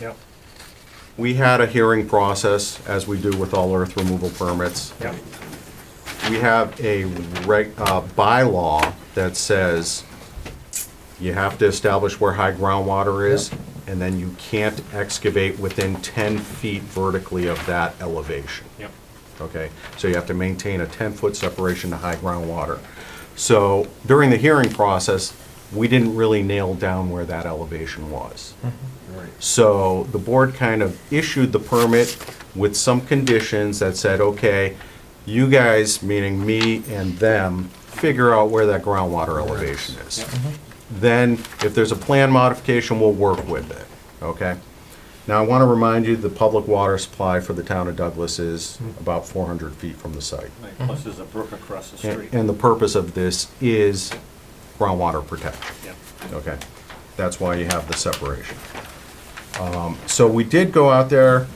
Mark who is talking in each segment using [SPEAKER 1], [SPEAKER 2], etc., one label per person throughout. [SPEAKER 1] Yep,
[SPEAKER 2] We had a hearing process, as we do with all earth removal permits.
[SPEAKER 1] yep,
[SPEAKER 2] We have a reg, uh, bylaw that says you have to establish where high groundwater is, and then you can't excavate within ten feet vertically of that elevation.
[SPEAKER 1] yep.
[SPEAKER 2] Okay, so you have to maintain a 10-foot separation to high groundwater. So during the hearing process, we didn't really nail down where that elevation was. So the board kind of issued the permit with some conditions that said, okay, you guys, meaning me and them, figure out where that groundwater elevation is.
[SPEAKER 1] Mm-hmm.
[SPEAKER 2] Then, if there's a plan modification, we'll work with it, okay? Now, I want to remind you, the public water supply for the town of Douglas is about 400 feet from the site.
[SPEAKER 1] Mm-hmm. Right, Plus there's a brook across the
[SPEAKER 2] And
[SPEAKER 1] street.
[SPEAKER 2] and the purpose of this is groundwater protection.
[SPEAKER 1] Yep,
[SPEAKER 2] Okay, that's why you have the separation. Um, So we did go out there,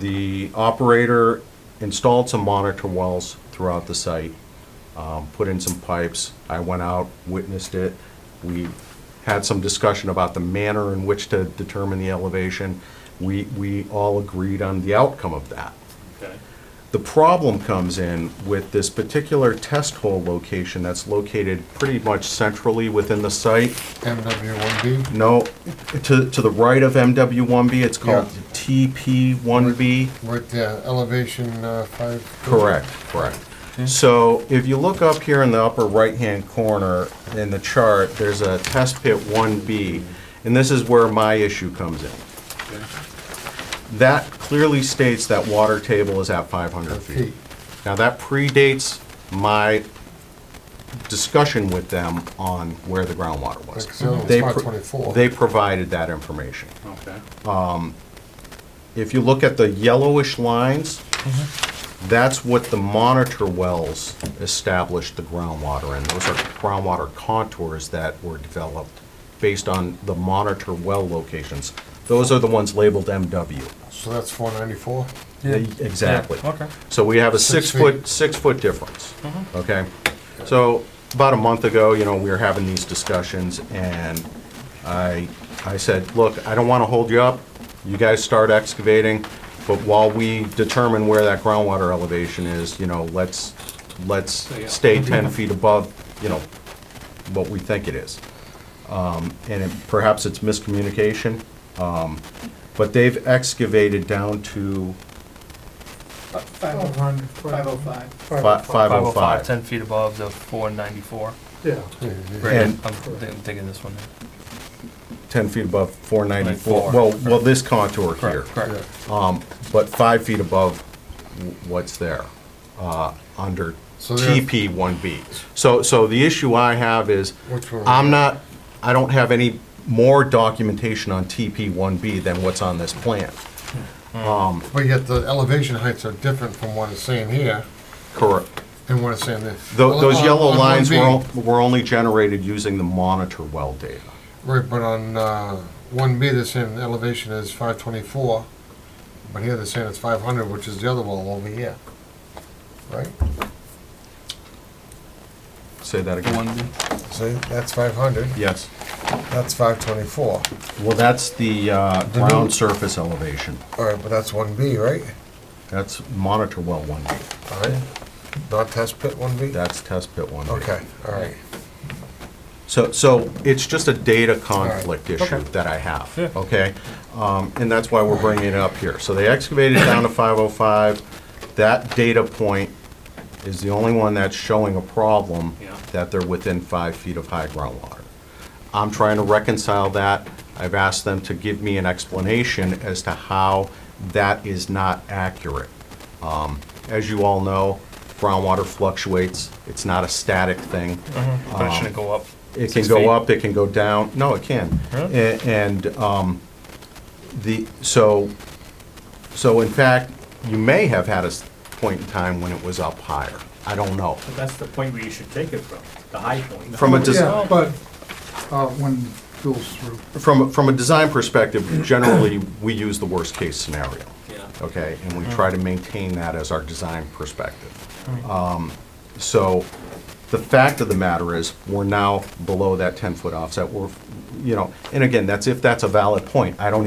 [SPEAKER 2] the operator installed some monitor wells throughout the site, um, put in some pipes. I went out, witnessed it. We had some discussion about the manner in which to determine the elevation. We, we all agreed on the outcome of that.
[SPEAKER 1] okay,
[SPEAKER 2] The problem comes in with this particular test hole location that's located pretty much centrally within the site.
[SPEAKER 3] MW1B?
[SPEAKER 2] No, to, to the right of MW1B, it's called
[SPEAKER 3] Yeah.
[SPEAKER 2] TP1B.
[SPEAKER 3] With uh, elevation uh, five?
[SPEAKER 2] Correct, correct. So if you look up here in the upper right-hand corner in the chart, there's a test pit 1B, and this is where my issue comes in.
[SPEAKER 1] okay.
[SPEAKER 2] That clearly states that water table is at 500 feet.
[SPEAKER 3] Feet.
[SPEAKER 2] Now, that predates my discussion with them on where the groundwater was.
[SPEAKER 3] Like, so it's
[SPEAKER 2] They
[SPEAKER 3] not
[SPEAKER 2] pro-
[SPEAKER 3] 24.
[SPEAKER 2] They provided that information.
[SPEAKER 1] Okay,
[SPEAKER 2] If you look at the yellowish lines, that's what the monitor wells established the groundwater in. Those are groundwater contours that were developed based on the monitor well locations. Those are the ones labeled MW.
[SPEAKER 3] So that's 494?
[SPEAKER 2] E, Exactly.
[SPEAKER 4] Okay.
[SPEAKER 2] So we have a
[SPEAKER 3] Six
[SPEAKER 2] six-foot,
[SPEAKER 3] feet.
[SPEAKER 2] six-foot difference, okay? So about a month ago, you know, we were having these discussions, and I, I said, look, I don't want to hold you up. You guys start excavating, but while we determine where that groundwater elevation is, you know, let's, let's
[SPEAKER 1] Yeah.
[SPEAKER 2] stay 10 feet above, you know, what we think it is. Um, And it- perhaps it's miscommunication, um, but they've excavated down to
[SPEAKER 5] 500. 505.
[SPEAKER 2] fi- 505.
[SPEAKER 4] 10 feet above the 494.
[SPEAKER 5] Yeah.
[SPEAKER 3] Yeah, yeah.
[SPEAKER 4] Right, I'm
[SPEAKER 2] And-
[SPEAKER 4] thi- I'm thinking this one.
[SPEAKER 2] 10 feet above 494,
[SPEAKER 4] Four.
[SPEAKER 2] well, well, this contour here.
[SPEAKER 4] Correct, correct.
[SPEAKER 2] But five feet above w- what's there, uh, under
[SPEAKER 3] So there-
[SPEAKER 2] TP1B. So, so the issue I have is,
[SPEAKER 3] Which one?
[SPEAKER 2] I'm not, I don't have any more documentation on TP1B than what's on this plan.
[SPEAKER 3] But yet the elevation heights are different from what it's saying here
[SPEAKER 2] Correct.
[SPEAKER 3] and what it's saying there.
[SPEAKER 2] Tho- Those
[SPEAKER 3] On-
[SPEAKER 2] yellow
[SPEAKER 3] on
[SPEAKER 2] lines were,
[SPEAKER 3] 1B,
[SPEAKER 2] on- were only generated using the monitor well data.
[SPEAKER 3] Right, but on uh, 1B, they're saying the elevation is 524, but here they're saying it's 500, which is the other wall over here. Right?
[SPEAKER 2] Say that again.
[SPEAKER 4] One,
[SPEAKER 3] See, that's 500,
[SPEAKER 2] Yes.
[SPEAKER 3] that's 524.
[SPEAKER 2] Well, that's the uh,
[SPEAKER 3] new-
[SPEAKER 2] ground surface elevation.
[SPEAKER 3] All right, but that's 1B, right?
[SPEAKER 2] That's monitor well 1B.
[SPEAKER 3] All right, not test pit 1B?
[SPEAKER 2] That's test pit one.
[SPEAKER 3] Okay, all right.
[SPEAKER 2] So, so it's just a data conflict
[SPEAKER 4] Alright,
[SPEAKER 2] issue
[SPEAKER 4] okay.
[SPEAKER 2] that I have,
[SPEAKER 4] Yeah.
[SPEAKER 2] okay? Um, And that's why we're bringing it up here. So they excavated down to 505. That data point is the only one that's showing a problem
[SPEAKER 1] Yeah.
[SPEAKER 2] that they're within five feet of high groundwater. I'm trying to reconcile that. I've asked them to give me an explanation as to how that is not accurate. Um, As you all know, groundwater fluctuates. It's not a static thing.
[SPEAKER 4] Mm-hmm. but it shouldn't go up.
[SPEAKER 2] Uh, It can
[SPEAKER 4] Six
[SPEAKER 2] go
[SPEAKER 4] feet?
[SPEAKER 2] up, it can go down, no, it can.
[SPEAKER 4] Really?
[SPEAKER 2] A- And um, the, so, so in fact, you may have had a s- point in time when it was up higher. I don't know.
[SPEAKER 1] But that's the point where you should take it from, the high point.
[SPEAKER 2] From a, des-
[SPEAKER 5] Yeah, but uh, when goes through.
[SPEAKER 2] from, from a design perspective, generally, we use the worst-case scenario,
[SPEAKER 1] Yeah.
[SPEAKER 2] okay? And we try to maintain that as our design perspective. Um, So the fact of the matter is, we're now below that 10-foot offset. We're, you know, and again, that's if that's a valid point. I don't